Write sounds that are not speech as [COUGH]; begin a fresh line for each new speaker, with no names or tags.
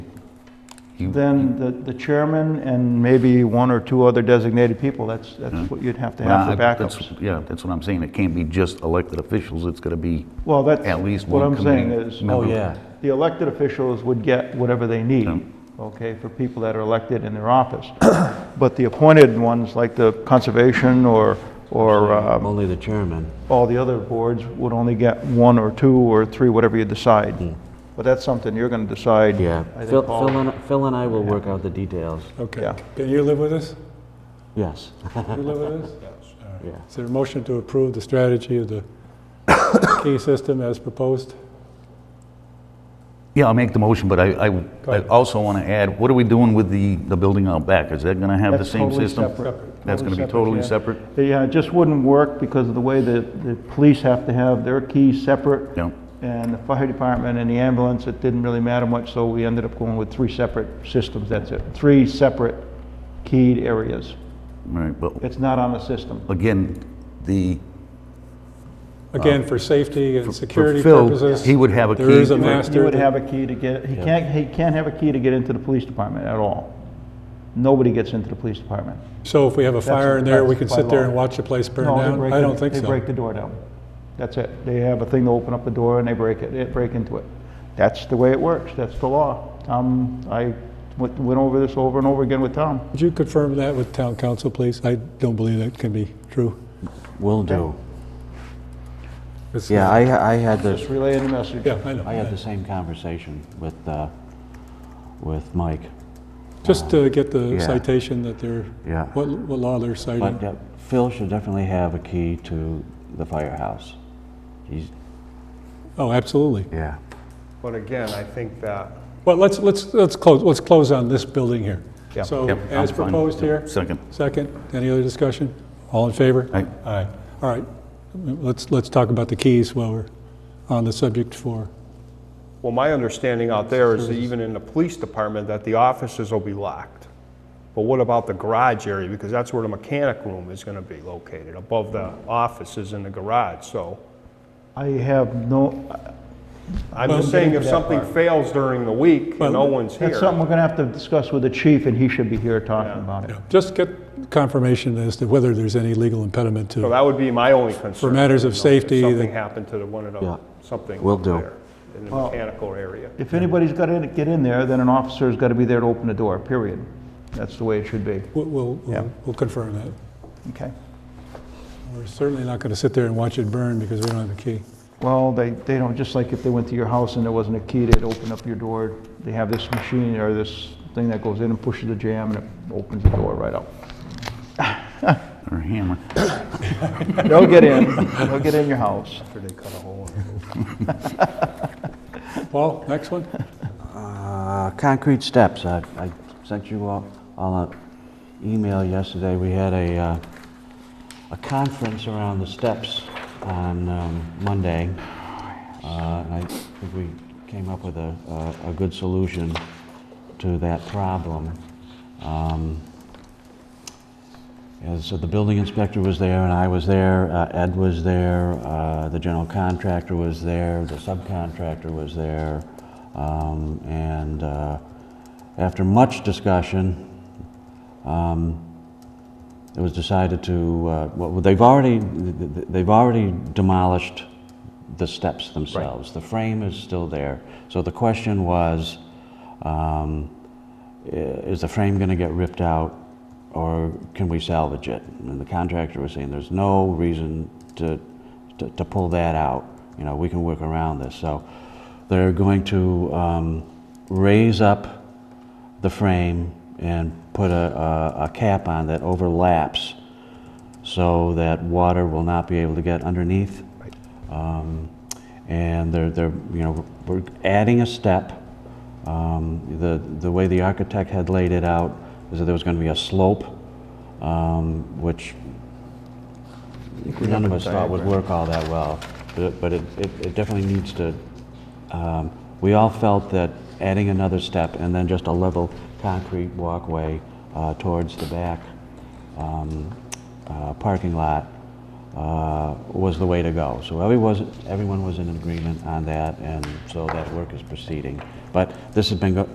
You-
Then the, the chairman and maybe one or two other designated people, that's, that's what you'd have to have
Well,
for
I- that's-
backups.
Yeah, that's what I'm saying, it can't be just elected officials, it's gonna be
Well, that's
at least
what
one
I'm saying
committee
is,
member.
Oh, yeah.
the elected officials would get whatever they need,
Yeah.
okay, for people that are elected in their office. [COUGHS] But the appointed ones, like the conservation or, or
I'm
uh,
only the chairman.
all the other boards, would only get one or two or three, whatever you
Hmm.
decide. But that's something you're going to decide.
Hmm. Yeah.
I think,
Phil,
Paul.
Phil and, Phil and I will work out the details.
Okay.
Yeah.
Can you live with this?
Yes. [LAUGHS]
Can you live with this?
Yeah.
Is there a motion to approve the strategy of the key system as proposed?
Yeah, I'll make the motion, but I, I- I
ahead.
also wanna add, what are we doing with the, the building out back? Is that gonna have the
That's
same
totally
system?
separate.
That's gonna be
yeah.
totally separate?
Yeah, it uh, just wouldn't work because of the way that the police have to have their keys separate.
Yeah.
And the fire department and the ambulance, it didn't really matter much, so we ended up going with three separate systems, that's it. Three separate keyed areas.
All right, but
It's not on a system.
again, the,
Again, for safety and security
Phil,
purposes.
he would have a
There is
key
a
for-
master.
You would have a key to get, he can't, he can't have a key to get into the police department at all. Nobody gets into the police department.
So if we have a fire in there, we can sit there and watch the place burn
No, they
down?
break
I
the-
don't think
They break
so.
the door down. That's it. They have a thing to open up the door and they break it, they break into it. That's the way it works. That's the law. Um, I went, went over this over and over again with Tom.
Would you confirm that with town council, please? I don't believe that can be true.
Will do.
It's-
Yeah, I, I had the,
Just relaying the message.
Yeah, I
I had the
know.
same conversation with, uh, with Mike.
Just to get the
Yeah.
citation that they're,
Yeah.
what what law they're citing.
But uh, Phil should definitely have a key to the firehouse. He's,
Oh, absolutely.
yeah.
But again, I think that,
Well, let's, let's, let's close, let's close on this building here.
Yeah.
So
Yep, I'm
as
fine.
proposed here,
Second.
second, any other discussion? All in favor?
Aye.
Aye. All right, let's, let's talk about the keys while we're on the subject for,
well, my understanding out there is that even in the police department, that the offices will be locked. But what about the garage area? Because that's where the mechanic room is gonna be located, above the offices in the garage, so.
I have no,
I'm just saying if something fails during the week and no one's
that's
here.
something we're gonna have to discuss with the chief and he should be here talking about it.
just get confirmation as to whether there's any legal impediment
So
to,
that would be my only concern.
For matters of
you know, if
safety,
Something
the-
happened to the one of
Yeah.
the, something.
Will do.
there In the mechanical area.
If anybody's gotta get in there, then an officer's gotta be there to open the door, period. That's the way it should be,
we'll- we'll,
Yeah.
we'll we'll confirm that.
okay?
We're certainly not going to sit there and watch it burn because we don't have a key.
Well, they, they don't, just like if they went to your house and there wasn't a key, they'd open up your door. They have this machine or this thing that goes in and pushes the jam and it opens the door right up.
or hammer?
They'll get in, they'll get in your house.
Paul, next one?
Uh, concrete steps, I, I sent you all, all an email yesterday, we had a, uh, a conference around the steps on, um, Monday. Uh, and I think we came up with a, a, a good solution to that problem. Um, and so the building inspector was there, and I was there, uh, Ed was there, uh, the general contractor was there, the subcontractor was there. Um, And uh, after much discussion, um, it was decided to, uh, well, they've already, th- th- they've already demolished the steps themselves. The frame is still there. So the question was, um, i- uh, is the frame going to get ripped out or can we salvage it? And the contractor was saying, there's no reason to, to, to pull that out. You know, we can work around this. So they're going to um, raise up the frame and put a, a, a cap on that overlaps so that water will not be able to get underneath. Um, and they're, they're, you know, we're adding a step. Um, the, the way the architect had laid it out is that there was going to be a slope, um, which none of us thought would work all that well. But, but it, it, it definitely needs to, um, we all felt that adding another step and then just a level concrete walkway uh, towards the back um, uh, parking lot uh, was the way to go. So everyone was, everyone was in agreement on that, and so that work is proceeding. But this has been go-